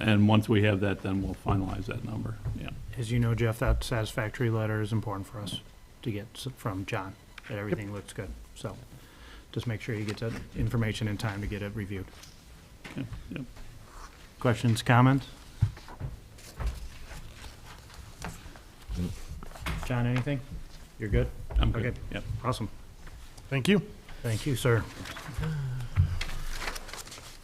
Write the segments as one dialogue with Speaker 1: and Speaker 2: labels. Speaker 1: And once we have that, then we'll finalize that number, yeah.
Speaker 2: As you know, Jeff, that satisfactory letter is important for us to get s- from John, that everything looks good. So just make sure you get that information in time to get it reviewed.
Speaker 1: Okay, yep.
Speaker 2: Questions, comments? John, anything? You're good?
Speaker 1: I'm good,
Speaker 2: Okay.
Speaker 1: yep.
Speaker 2: Awesome.
Speaker 3: Thank you.
Speaker 2: Thank you, sir.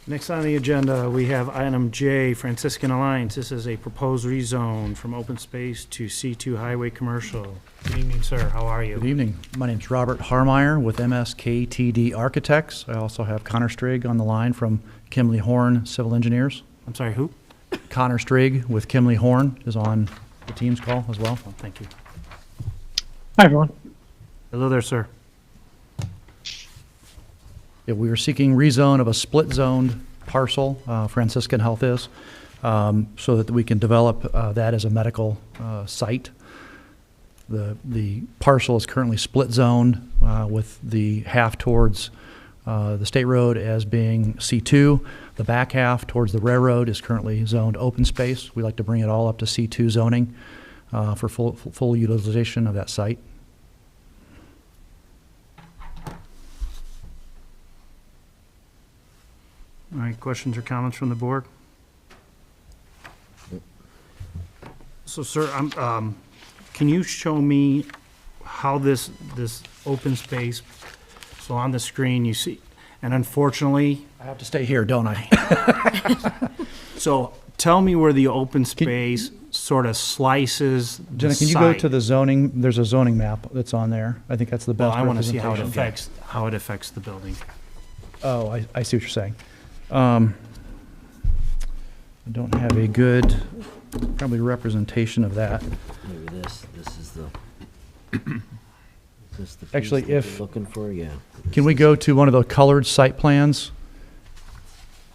Speaker 2: Next on the agenda, we have item J, Franciscan Alliance. This is a proposed rezone from open space to C2 highway commercial. Good evening, sir. How are
Speaker 3: Good
Speaker 2: you?
Speaker 3: evening. My name's Robert Harmeyer with MSKTD Architects. I also have Connor Strigg on the line from Kimley Horn Civil Engineers.
Speaker 2: I'm sorry, who?
Speaker 3: Connor Strigg with Kimley Horn is on the team's call as well.
Speaker 2: Oh, thank you.
Speaker 4: Hi, everyone.
Speaker 2: Hello there, sir.
Speaker 3: Yeah, we are seeking rezone of a split-zoned parcel, uh, Franciscan Health is, um, so that we can develop uh, that as a medical uh, site. The, the parcel is currently split-zoned uh, with the half towards uh, the state road as being C2. The back half towards the railroad is currently zoned open space. We like to bring it all up to C2 zoning uh, for full, full utilization of that site.
Speaker 2: All right, questions or comments from the board? So, sir, I'm, um, can you show me how this, this open space, so on the screen you see, and unfortunately,
Speaker 3: I have to stay here, don't I?
Speaker 2: So tell me where the open space sort of slices the
Speaker 3: Jenna, can you go
Speaker 2: site.
Speaker 3: to the zoning, there's a zoning map that's on there. I think that's the
Speaker 2: Well,
Speaker 3: best
Speaker 2: I want to see how it
Speaker 3: representation.
Speaker 2: affects, how it affects the building.
Speaker 3: Oh, I, I see what you're saying. Um, I don't have a good, probably representation of that.
Speaker 5: Maybe this, this is the. is this the piece
Speaker 3: Actually,
Speaker 5: that you're
Speaker 3: if-
Speaker 5: Looking for, yeah.
Speaker 3: Can we go to one of the colored site plans?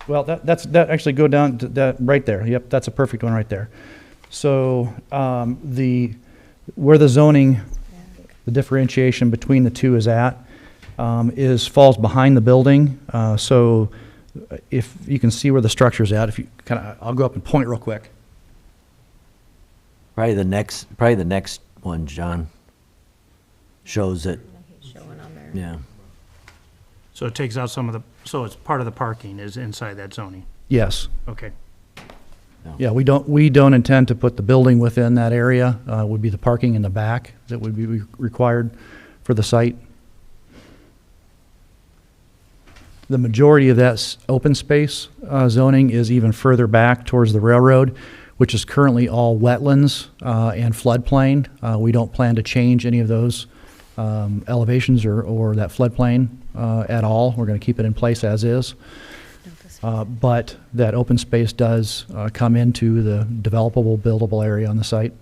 Speaker 3: Well, that, that's, that, actually go down to that, right there. Yep, that's a perfect one right there. So, um, the, where the zoning, the differentiation between the two is at, um, is, falls behind the building. Uh, so uh, if you can see where the structure's at, if you kind of, I'll go up and point real quick.
Speaker 5: Probably the next, probably the next one, John, shows it,
Speaker 6: showing on there.
Speaker 5: yeah.
Speaker 2: So it takes out some of the, so it's part of the parking is inside that zoning.
Speaker 3: Yes.
Speaker 2: Okay.
Speaker 3: Yeah, we don't, we don't intend to put the building within that area. Uh, would be the parking in the back that would be re- required for the site. The majority of that s- open space uh, zoning is even further back towards the railroad, which is currently all wetlands uh, and floodplain. Uh, We don't plan to change any of those um, elevations or, or that floodplain uh, at all. We're going to keep it in place as is. Uh, But that open space does uh, come into the developable, buildable area on the site.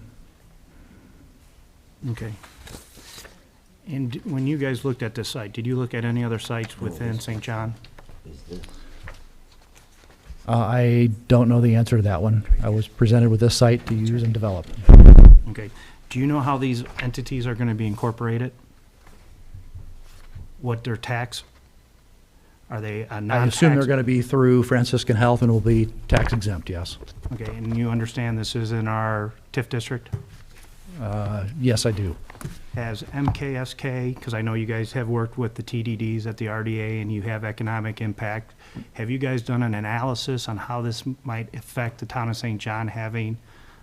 Speaker 2: Okay. And when you guys looked at this site, did you look at any other sites within St. John?
Speaker 5: Is this-
Speaker 3: Uh, I don't know the answer to that one. I was presented with this site to use and develop.
Speaker 2: Okay. Do you know how these entities are going to be incorporated? What their tax? Are they a
Speaker 3: I
Speaker 2: non-tax?
Speaker 3: assume they're going to be through Franciscan Health and will be tax exempt, yes.
Speaker 2: Okay, and you understand this is in our TIF district?
Speaker 3: Uh, Yes, I do.
Speaker 2: Has MKSK, because I know you guys have worked with the TDDs at the RDA and you have economic impact, have you guys done an analysis on how this might affect the town of St. John having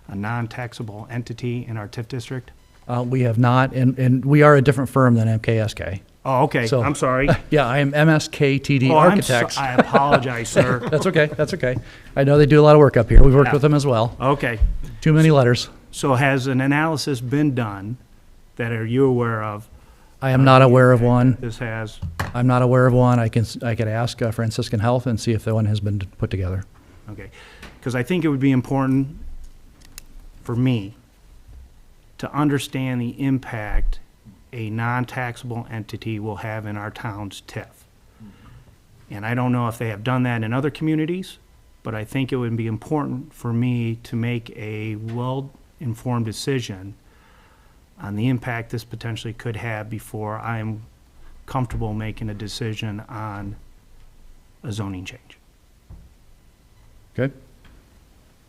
Speaker 2: a non-taxable entity in our TIF district?
Speaker 3: Uh, We have not, and, and we are a different firm than MKSK.
Speaker 2: Oh, okay,
Speaker 3: So-
Speaker 2: I'm sorry.
Speaker 3: Yeah, I am MSKTD
Speaker 2: Oh, I'm so-
Speaker 3: Architects.
Speaker 2: I apologize, sir.
Speaker 3: That's okay, that's okay. I know they do a lot of work up here. We've worked with them as well.
Speaker 2: Okay,
Speaker 3: Too many letters.
Speaker 2: so has an analysis been done that are you aware of?
Speaker 3: I am not aware of one.
Speaker 2: This has,
Speaker 3: I'm not aware of one. I can, s- I could ask uh, Franciscan Health and see if that one has been put together.
Speaker 2: Okay, because I think it would be important for me to understand the impact a non-taxable entity will have in our town's TIF. And I don't know if they have done that in other communities, but I think it would be important for me to make a well-informed decision on the impact this potentially could have before I'm comfortable making a decision on a zoning change.
Speaker 3: Okay.